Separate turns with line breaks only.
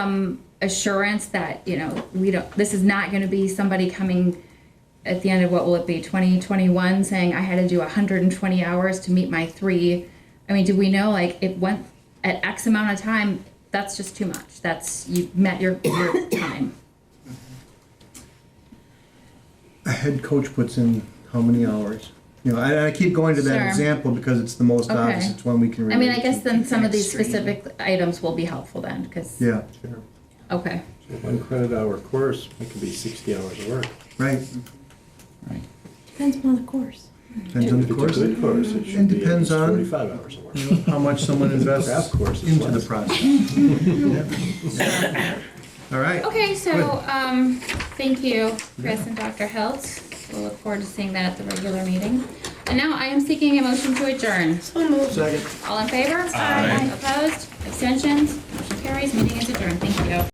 some assurance that, you know, we don't, this is not gonna be somebody coming at the end of what will it be, twenty twenty-one, saying I had to do hundred and twenty hours to meet my three? I mean, do we know, like, it went at X amount of time, that's just too much, that's, you met your, your time.
a head coach puts in how many hours? You know, and I keep going to that
Sure.
example because it's the most obvious.
Okay.
It's one we can.
I mean,
relate
I guess
to.
then some of these
Extreme.
specific items will be helpful then, because,
Yeah.
Sure.
okay,
So One credit hour course, it could be sixty hours of work.
Right.
Right.
Depends upon the course.
Depends on
If
the
it's a
course.
good course, it should be at
depends
least
on-
forty-five hours of work.
You know, how much someone invests
Craft course is
into the
less.
process. All right.
Okay, so, um, thank you, Chris and Dr. Hilt. We'll look forward to seeing that at the regular meeting. And now I am seeking a motion to adjourn.
Second.
All in favor? Aye. Opposed? Abstentions? Motion carries. Meeting is adjourned. Thank you.